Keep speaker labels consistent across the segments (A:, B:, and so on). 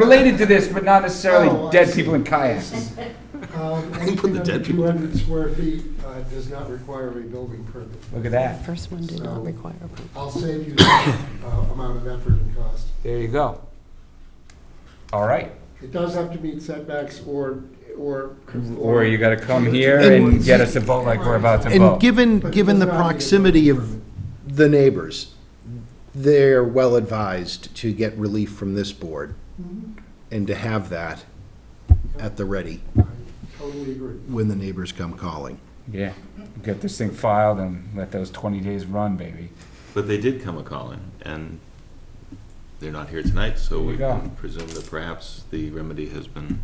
A: Related to this, but not
B: Oh,
A: necessarily
B: I
A: dead
B: see.
A: people in kayaks.
B: Um,
C: Put
B: Anything
C: the
B: under
C: dead people.
B: 200 square feet uh, does not require a building permit.
A: Look at that.
D: First one did
B: So-
D: not require approval.
B: I'll save you that uh, amount of effort and cost.
A: There you go. All right.
B: It does have to meet setbacks or, or.
A: Or you gotta come here and get us a vote like we're about to
E: And
A: vote.
E: given,
B: But it
E: given
B: does
E: the
B: not need a
E: proximity of
B: building
E: the neighbors, they're well advised to get relief from this board
B: Mm-hmm.
E: and to have that at the ready
B: permit. I Totally agree.
E: when the neighbors come calling.
A: Yeah, get this thing filed and let those 20 days run, baby.
C: But they did come a-calling, and they're not here tonight, so
A: There you
C: we
A: go.
C: can presume that perhaps the remedy has been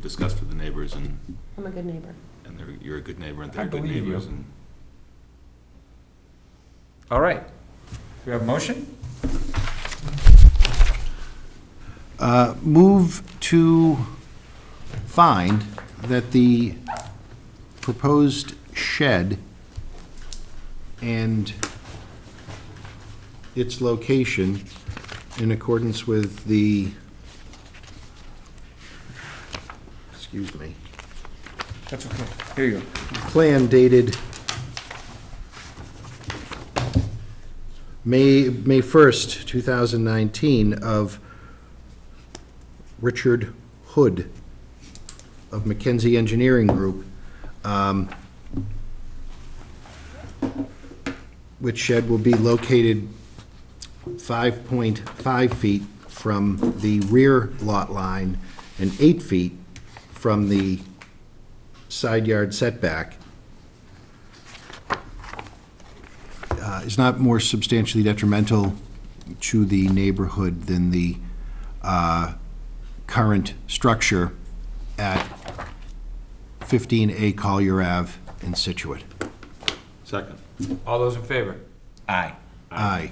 C: discussed with the neighbors, and,
D: I'm a good neighbor.
C: and they're, you're a good neighbor, and
A: I
C: they're good
A: believe you.
C: neighbors, and
A: All right. Do we have a motion?
E: Uh, Move to find that the proposed shed and its location in accordance with the, excuse me,
A: That's okay. Here you go.
E: plan dated May, May 1st, 2019, of Richard Hood of McKenzie Engineering Group, um, which shed will be located 5.5 feet from the rear lot line and 8 feet from the side yard setback uh, is not more substantially detrimental to the neighborhood than the uh, current structure at 15A Collier Ave in Situate.
C: second.
A: All those in favor? Aye.
E: Aye.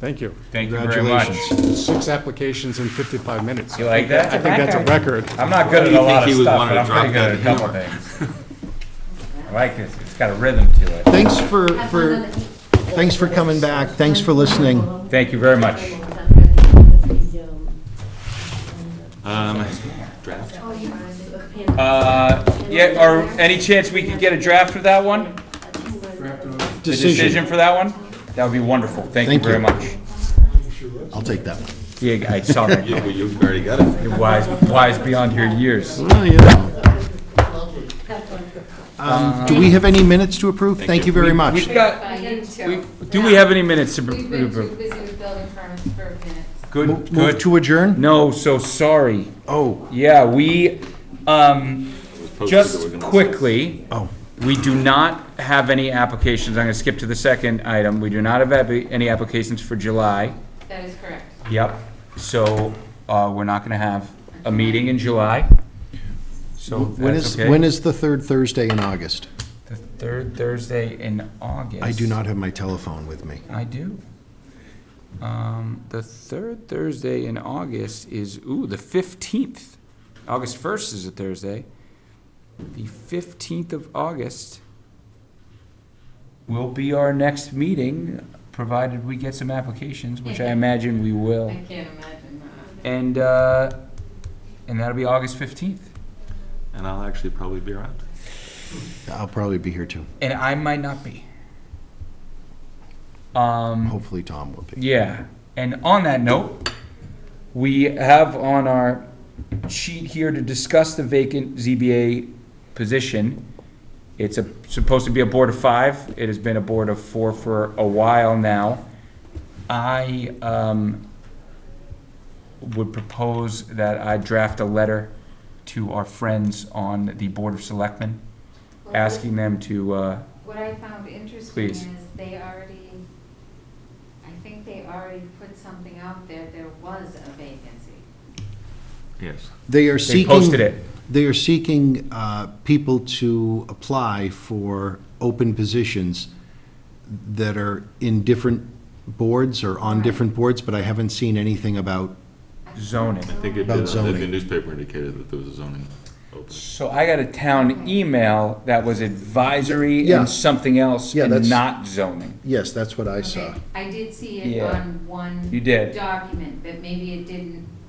F: Thank you.
A: Thank you very much.
E: Congratulations.
F: Six applications in 55 minutes.
A: You like
F: I
A: that?
F: think that's a record.
A: I'm not good at
C: You
A: a
C: think
A: lot
C: he
A: of
C: would
A: stuff,
C: wanna
A: but I'm pretty
C: drop
A: good at a
C: that
A: couple things. I like this. It's got a rhythm to it.
E: Thanks for, for, thanks for coming back. Thanks for listening.
A: Thank you very much.
C: Um, draft?
A: Uh, yeah, or any chance we could get a draft for that one? The Decision for that one? That would be wonderful. Thank you
E: Thank
A: very
E: you.
A: much.
E: I'll take that one.
A: Yeah, I saw that.
C: You, you've already got it.
A: You're wise, wise beyond your years.
E: Well, you know. Um, Do we have any minutes to approve? Thank you very much.
A: We've got,
G: I didn't too.
A: we, do we have any minutes to?
G: We've been too busy with building permits for minutes.
A: Good,
E: Move
A: good.
E: to adjourn?
A: No, so sorry.
E: Oh,
A: Yeah, we, um, just quickly,
E: oh.
A: we do not have any applications. I'm gonna skip to the second item. We do not have ab- any applications for July.
G: That is correct.
A: Yep, so, uh, we're not gonna have a meeting in July. So
E: When
A: that's
E: is,
A: okay.
E: when is the third Thursday in August?
A: The third Thursday in August.
E: I do not have my telephone with me.
A: I do. Um, the third Thursday in August is, ooh, the fifteenth. August first is a Thursday. The fifteenth of August will be our next meeting, provided we get some applications, which I imagine we will.
G: I can't imagine that.
A: And, uh, and that'll be August fifteenth.
C: And I'll actually probably be around.
E: I'll probably be here too.
A: And I might not be. Um,
E: Hopefully Tom will be.
A: Yeah, and on that note, we have on our sheet here to discuss the vacant ZBA position. It's a, supposed to be a board of five, it has been a board of four for a while now. I, um, would propose that I draft a letter to our friends on the Board of Selectmen, asking them to, uh,
G: What I found interesting
A: Please.
G: is they already, I think they already put something out there, there was a vacancy.
C: Yes.
E: They are
A: they
E: seeking.
A: posted it.
E: They are seeking uh, people to apply for open positions that are in different boards or on different boards, but I haven't seen anything about,
A: zoning.
C: I think it
E: About
C: did, I think the
E: zoning.
C: newspaper indicated that there was a zoning open.
A: So I got a town email that was advisory
E: Yeah.
A: and something else
E: Yeah,
A: and
E: that's-
A: not zoning.
E: yes, that's what I saw.
G: Okay, I did see it
A: Yeah.
G: on one.
A: You did.
G: Document, but maybe it didn't